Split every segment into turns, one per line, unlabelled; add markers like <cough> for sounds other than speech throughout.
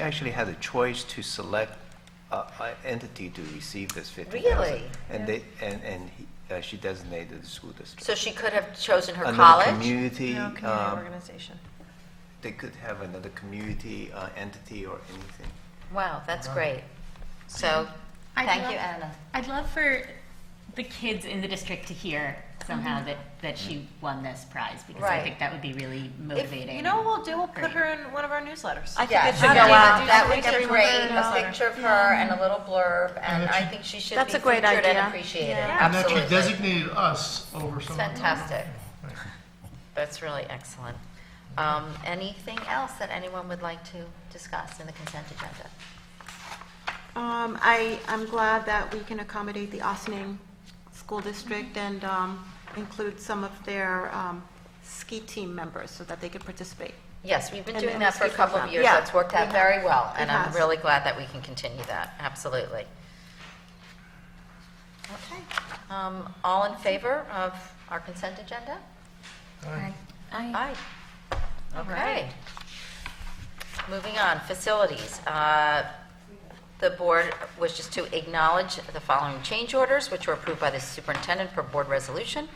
actually had a choice to select an entity to receive this 50,000.
Really?
And they, and, and he- uh, she designated the school district.
So she could have chosen her
Another
college?
community,
No,
um,
community organization.
they could have another community uh, entity or anything.
Wow, that's great. So,
I'd
thank
love-
you, Anna.
I'd love for the kids in the district to hear somehow that, that she won this prize because
Right.
I think that would be really
If,
motivating.
you know what we'll do? We'll
Great.
put her in one of our newsletters.
I think
Yeah,
it
she
should
go
go
Yeah,
out,
do
that
some
would be
research on
great,
her
a
newsletter.
picture of her and a little blurb, and I think she should be
That's a great
featured and
idea.
appreciated,
And that you
absolutely.
designated us over some.
Fantastic. That's really excellent. Um, Anything else that anyone would like to discuss in the consent agenda?
Um, I, I'm glad that we can accommodate the Austining School District and um, include some of their um, ski team members so that they could participate.
Yes, we've been
And
doing
then
that for a
speak
couple
with
of
them.
years.
Yeah.
That's worked out
It
very well, and
It
I'm
has.
really glad that we can continue that, absolutely. Okay, Um, all in favor of our consent agenda?
Aye.
Aye. Okay. Moving on, facilities. Uh, The board wishes to acknowledge the following change orders, which were approved by the superintendent per board resolution,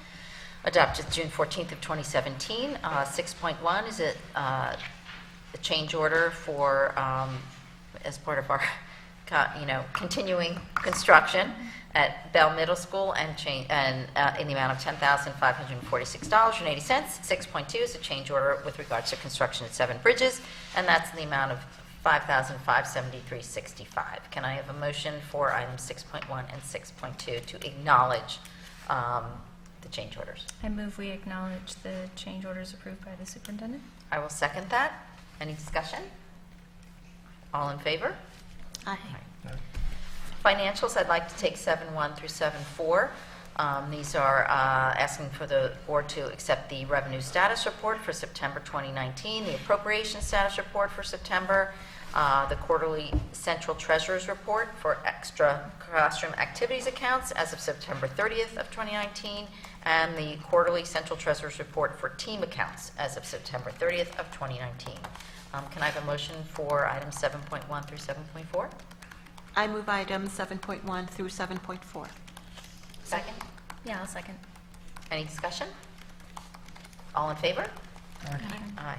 adopted June 14th of 2017. Uh, 6.1 is a uh, a change order for, um, as part of our, <laughs> co- you know, continuing construction at Bell Middle School and change, and uh, in the amount of $10,546.80. 6.2 is a change order with regards to construction at Seven Bridges, and that's in the amount of $5,573.65. Can I have a motion for items 6.1 and 6.2 to acknowledge um, the change orders?
I move we acknowledge the change orders approved by the superintendent.
I will second that. Any discussion? All in favor?
Aye.
Financials, I'd like to take 7-1 through 7-4. Um, These are uh, asking for the board to accept the revenue status report for September 2019, the appropriation status report for September, uh, the quarterly central treasurer's report for extra classroom activities accounts as of September 30th of 2019, and the quarterly central treasurer's report for team accounts as of September 30th of 2019. Um, Can I have a motion for items 7.1 through 7.4?
I move items 7.1 through 7.4.
Second?
Yeah, I'll second.
Any discussion? All in favor? Aye.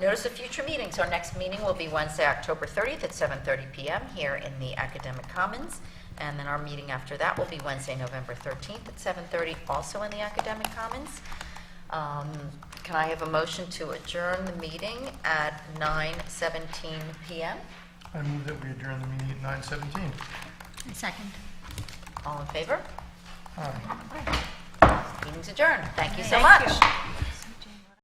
Notice of future meetings. Our next meeting will be Wednesday, October 30th at 7:30 PM here in the Academic Commons. And then our meeting after that will be Wednesday, November 13th at 7:30, also in the Academic Commons. Um, Can I have a motion to adjourn the meeting at 9:17 PM?
I move that we adjourn the meeting at nine seventeen.
Second.
All in favor?
Aye.
Meeting's adjourned. Thank you so much.